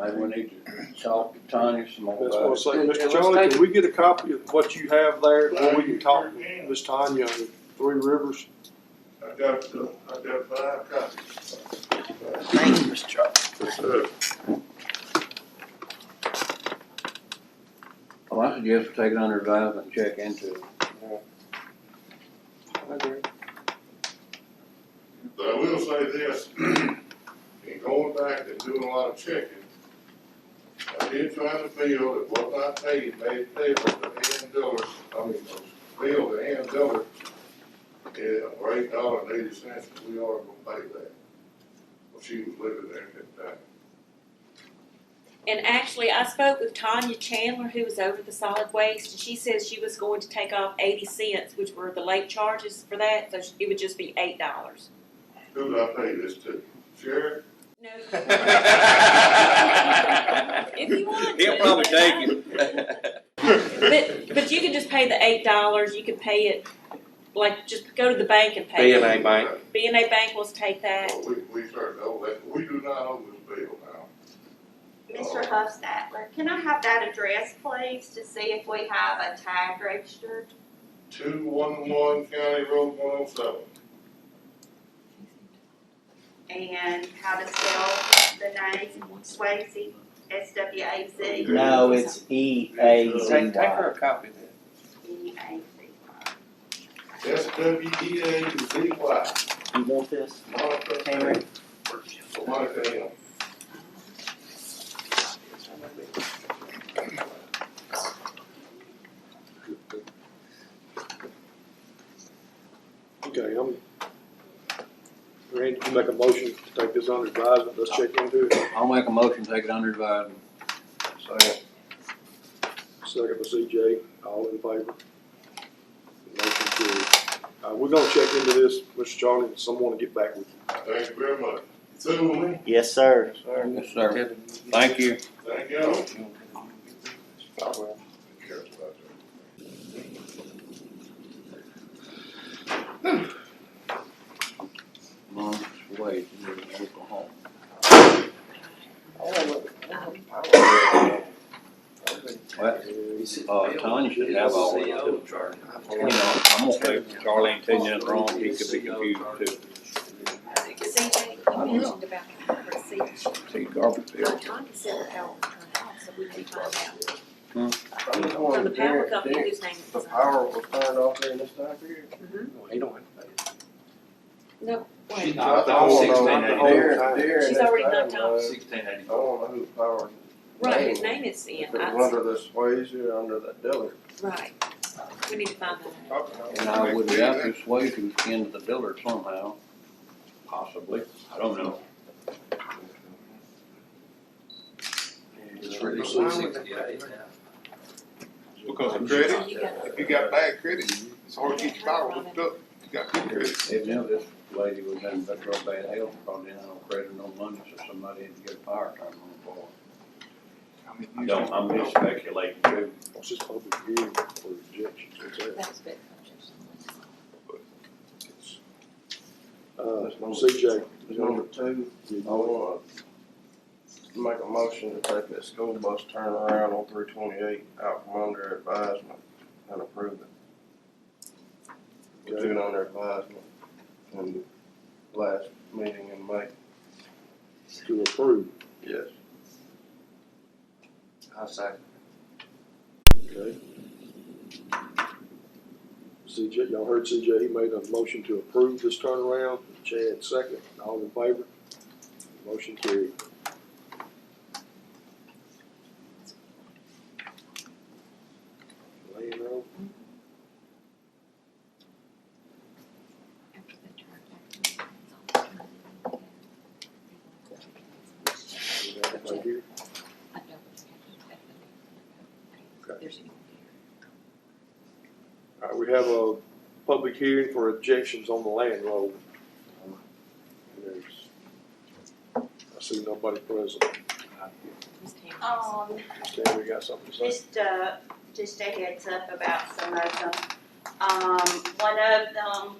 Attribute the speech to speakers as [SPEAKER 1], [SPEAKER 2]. [SPEAKER 1] maybe we need to talk to Tanya some more
[SPEAKER 2] That's
[SPEAKER 1] about
[SPEAKER 2] what I'm
[SPEAKER 1] it.
[SPEAKER 2] saying,
[SPEAKER 3] And- and
[SPEAKER 2] Mr.
[SPEAKER 3] let's
[SPEAKER 2] Charlie,
[SPEAKER 3] take
[SPEAKER 2] can we get a copy of what you have there, and we can talk to Ms. Tanya and Three Rivers?
[SPEAKER 4] I got, uh, I got five copies.
[SPEAKER 1] Thank you, Mr. Charles.
[SPEAKER 4] Uh,
[SPEAKER 1] Well, I suggest we take it under advisement and check into it.
[SPEAKER 4] But I will say this, in going back and doing a lot of checking, I did find a bill that was not paid, made payable to Ann Diller, I mean, was billed to Ann Diller. Yeah, for eight dollars and eighty cents, we are gonna pay that. Well, she was living there at that time.
[SPEAKER 5] And actually, I spoke with Tanya Chandler, who was over the solid waste, and she says she was going to take off eighty cents, which were the late charges for that, so it would just be eight dollars.
[SPEAKER 4] Who did I pay this to? Sheriff?
[SPEAKER 5] No.
[SPEAKER 3] He'll
[SPEAKER 5] If you want to.
[SPEAKER 3] probably take it.
[SPEAKER 5] But, but you can just pay the eight dollars, you can pay it, like, just go to the bank and
[SPEAKER 3] B
[SPEAKER 5] pay
[SPEAKER 3] and
[SPEAKER 5] it.
[SPEAKER 3] A bank.
[SPEAKER 5] B and A Bank wants to take that.
[SPEAKER 4] Well, we, we started over that, we do not owe this bill now.
[SPEAKER 6] Mr. Hufstatler, can I have that address, please, to see if we have a tag registered?
[SPEAKER 4] two one one County Road one oh seven.
[SPEAKER 6] And how to spell the name, Swayze, S W A Z
[SPEAKER 7] No, it's E A Z
[SPEAKER 3] Take, take her a
[SPEAKER 7] Y.
[SPEAKER 3] copy of that.
[SPEAKER 6] E A Z.
[SPEAKER 4] S W E A Z Y,
[SPEAKER 7] You want this,
[SPEAKER 4] Monica
[SPEAKER 7] Henry?
[SPEAKER 4] Payne, Monica M.
[SPEAKER 2] Okay, I'm, Randy, you make a motion to take this under advisement, let's check into it.
[SPEAKER 1] I'll make a motion, to take it under advisement. Second.
[SPEAKER 2] Second by CJ, all in favor? Motion carried. Uh, we're gonna check into this, Mr. Charlie, and someone will get back with you.
[SPEAKER 4] Thank you very much. Sue me,
[SPEAKER 7] Yes, sir.
[SPEAKER 1] Yes, sir. Thank you.
[SPEAKER 4] thank you.
[SPEAKER 1] Months away from Oklahoma. Well, uh, Tanya should have all that. You know, I'm gonna pay Charlie ain't taking nothing wrong, he could be confused too.
[SPEAKER 8] CJ, you mentioned about the receipt.
[SPEAKER 1] See, garbage bill.
[SPEAKER 8] Tanya said about her house, so we can find out.
[SPEAKER 5] From the power company whose name is.
[SPEAKER 3] was turned off during this time period? He don't have to pay.
[SPEAKER 5] Mm-hmm. No,
[SPEAKER 3] She's
[SPEAKER 5] wait,
[SPEAKER 3] not
[SPEAKER 2] the whole-
[SPEAKER 3] the whole time.
[SPEAKER 5] she's already knocked off.
[SPEAKER 3] Sixteen eighty.
[SPEAKER 9] I don't know whose power,
[SPEAKER 5] Right, his name is in,
[SPEAKER 9] if it was
[SPEAKER 5] I,
[SPEAKER 9] under the Swayze or under the Dillard.
[SPEAKER 5] right. We need to find that out.
[SPEAKER 1] And I would doubt this way to end the dealer somehow, possibly, I don't know.
[SPEAKER 3] It's
[SPEAKER 9] really
[SPEAKER 3] sixty-eight
[SPEAKER 4] Because
[SPEAKER 1] of
[SPEAKER 5] So you got
[SPEAKER 4] if you got bad credit, it's hard to get your power hooked up. You got good credit.
[SPEAKER 1] Evidently, this lady was in such real bad health, probably didn't have no credit, no money, so somebody had to get a fire alarm on for her. I don't, I'm just speculating too.
[SPEAKER 2] It's just public hearing for rejection, that's it.
[SPEAKER 8] That's good.
[SPEAKER 2] Uh, CJ,
[SPEAKER 9] Number two,
[SPEAKER 2] you-
[SPEAKER 9] I wanna make a motion to take that school bus turnaround on three twenty-eight out from under advisement and approve it. We took it under advisement in the last meeting in May.
[SPEAKER 2] to approve,
[SPEAKER 9] Yes. I second.
[SPEAKER 2] okay? CJ, y'all heard CJ, he made a motion to approve this turnaround, Chad second, all in favor? Motion carried. Lane Road, is that right here? All right, we have a public hearing for objections on the land road. There's- I see nobody present.
[SPEAKER 5] Ms. Tammy.
[SPEAKER 6] Um,
[SPEAKER 2] Okay, we got something to say.
[SPEAKER 6] Just uh just a heads up about some of them. Um, one of them